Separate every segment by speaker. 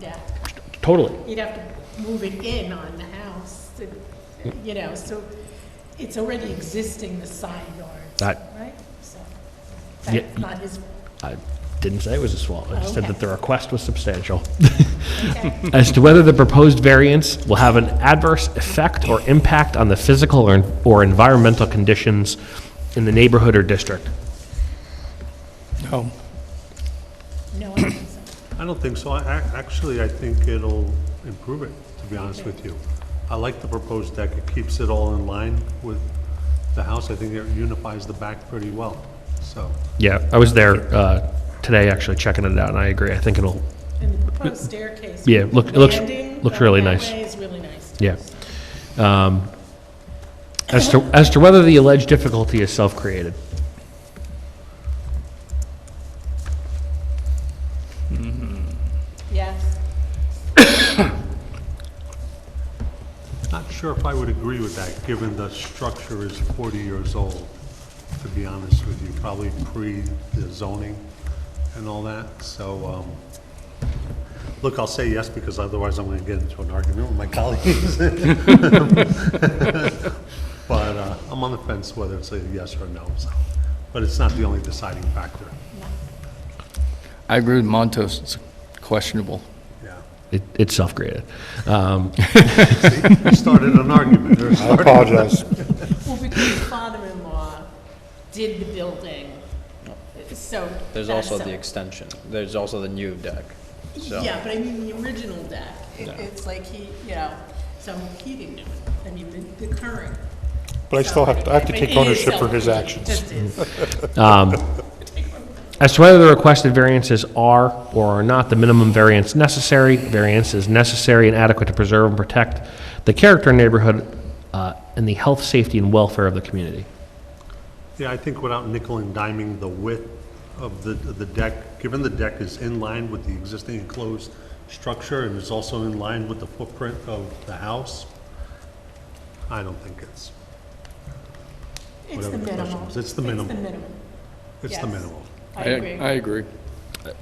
Speaker 1: deck.
Speaker 2: Totally.
Speaker 1: Oh, You'd have to move it in on the house, to- you know, so it's already existing, the side yard,
Speaker 2: I-
Speaker 1: right? So
Speaker 2: Ah. Yeah.
Speaker 1: That's not his,
Speaker 2: I didn't say it was a swamp. I just said
Speaker 1: Okay.
Speaker 2: that the request was substantial.
Speaker 1: okay,
Speaker 2: As to whether the proposed variance will have an adverse effect or impact on the physical or, or environmental conditions in the neighborhood or district.
Speaker 3: No.
Speaker 1: no, I don't think so.
Speaker 4: I don't think so. I, ac- actually, I think it'll improve it, to be honest with you. I like the proposed deck. It keeps it all in line with the house. I think it unifies the back pretty well, so.
Speaker 2: Yeah, I was there uh, today actually checking it out, and I agree. I think it'll,
Speaker 1: And the proposed staircase.
Speaker 2: Yeah,
Speaker 1: with
Speaker 2: look-
Speaker 1: the
Speaker 2: it looks-
Speaker 1: landing
Speaker 2: looks
Speaker 1: going
Speaker 2: really
Speaker 1: that
Speaker 2: nice.
Speaker 1: way is really nice. too.
Speaker 2: yeah. Um, as to as to whether the alleged difficulty is self-created,
Speaker 1: Yes,
Speaker 4: Not sure if I would agree with that, given the structure is 40 years old, to be honest with you, probably pre the zoning and all that. So, um, look, I'll say yes because otherwise I'm going to get into an argument with my colleagues. But uh, I'm on the fence whether it's a yes or a no, so. But it's not the only deciding factor,
Speaker 3: I agree with Montos, it's questionable.
Speaker 4: yeah.
Speaker 2: it, it's self-created. Um,
Speaker 4: You started an argument. There's-
Speaker 5: I apologize.
Speaker 1: well, because his father-in-law did the building, so.
Speaker 6: There's
Speaker 1: that's
Speaker 6: also the
Speaker 1: a-
Speaker 6: extension. There's also the new deck. So
Speaker 1: Yeah, but I mean, the original deck, it- it's like he, you know, so he didn't do it, I mean, the, the current.
Speaker 5: But I still have, to- I have to
Speaker 1: But it
Speaker 5: take
Speaker 1: is
Speaker 5: ownership for his
Speaker 1: self-created,
Speaker 5: actions.
Speaker 1: just is.
Speaker 2: As to whether the requested variances are or are not the minimum variance necessary, variance is necessary and adequate to preserve and protect the character and neighborhood uh, and the health, safety, and welfare of the community.
Speaker 4: Yeah, I think without nickel and diming the width of the, of the deck, given the deck is in line with the existing enclosed structure and is also in line with the footprint of the house, I don't think it's,
Speaker 1: It's the
Speaker 4: Whatever the question
Speaker 1: minimum.
Speaker 4: was,
Speaker 1: It's
Speaker 4: it's the
Speaker 1: the
Speaker 4: minimum.
Speaker 1: minimum,
Speaker 4: it's the
Speaker 1: Yes.
Speaker 4: minimal.
Speaker 1: I agree.
Speaker 3: I agree.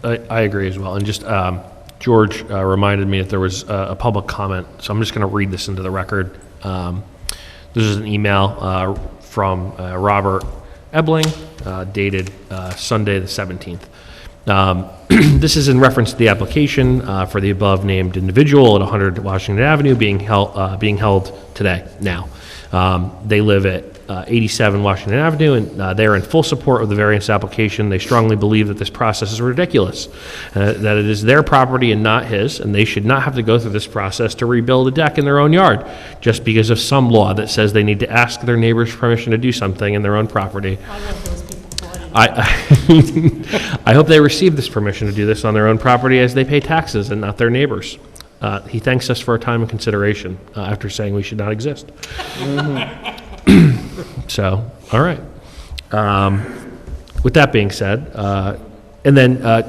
Speaker 2: I, I agree as well. And just, um, George uh, reminded me that there was uh, a public comment, so I'm just going to read this into the record. Um, this is an email uh, from uh, Robert Ebling uh, dated uh, Sunday, the 17th. Um, this is in reference to the application uh, for the above named individual at 100 Washington Avenue being held, uh, being held today, now. Um, They live at uh, 87 Washington Avenue, and uh, they are in full support of the variance application. They strongly believe that this process is ridiculous, uh, that it is their property and not his, and they should not have to go through this process to rebuild a deck in their own yard, just because of some law that says they need to ask their neighbor's permission to do something in their own property.
Speaker 1: I love those people bought in.
Speaker 2: I, I, I hope they receive this permission to do this on their own property as they pay taxes and not their neighbors. Uh, he thanks us for our time and consideration uh, after saying we should not exist. so, all right. Um, with that being said, uh, and then uh,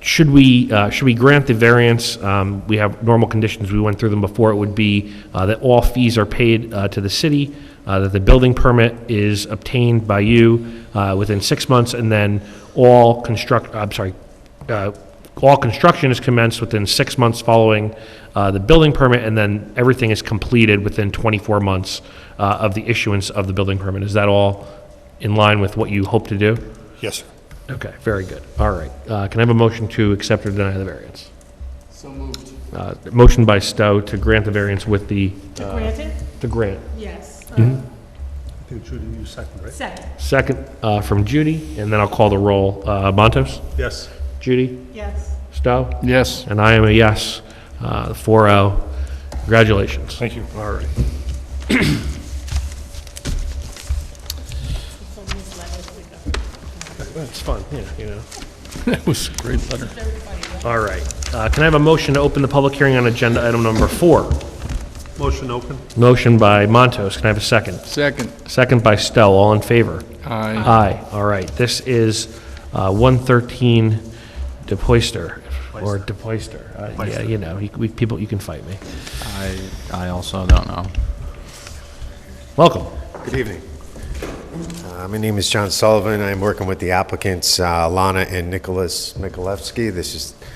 Speaker 2: should we uh, should we grant the variance? Um, we have normal conditions. We went through them before. It would be uh, that all fees are paid uh, to the city, uh, that the building permit is obtained by you uh, within six months, and then all construct. I'm sorry. Uh, all construction is commenced within six months following uh, the building permit, and then everything is completed within 24 months uh, of the issuance of the building permit. Is that all in line with what you hope to do?
Speaker 5: Yes, sir.
Speaker 2: Okay, very good. All right. Uh, Can I have a motion to accept or deny the variance?
Speaker 3: So moved.
Speaker 2: Uh, Motion by Stowe to grant the variance with the,
Speaker 1: To grant it,
Speaker 2: the grant.
Speaker 1: yes, uh,
Speaker 4: I think Judy, you second, right?
Speaker 1: second,
Speaker 2: Second uh, from Judy, and then I'll call the roll. Uh, Montos?
Speaker 4: Yes.
Speaker 2: Judy?
Speaker 1: yes.
Speaker 2: Stowe?
Speaker 3: Yes.
Speaker 2: And I am a yes. Uh, 4-0. Congratulations.
Speaker 5: Thank you.
Speaker 2: All right.
Speaker 1: So these letters we got.
Speaker 2: That's fun, yeah, you know.
Speaker 3: That was a great letter.
Speaker 2: All right. Uh, Can I have a motion to open the public hearing on agenda item number four?
Speaker 4: Motion open?
Speaker 2: Motion by Montos. Can I have a second?
Speaker 3: Second.
Speaker 2: Second by Stowe. All in favor?
Speaker 3: Aye.
Speaker 2: Aye, all right. This is uh, 113 De Poyster, or De Poyster. Uh, Yeah, you know, you- we- people, you can fight me.
Speaker 6: I, I also don't know.
Speaker 2: Welcome.
Speaker 7: Good evening. Uh, My name is John Sullivan. I'm working with the applicants uh, Lana and Nicholas Mikulewski. This is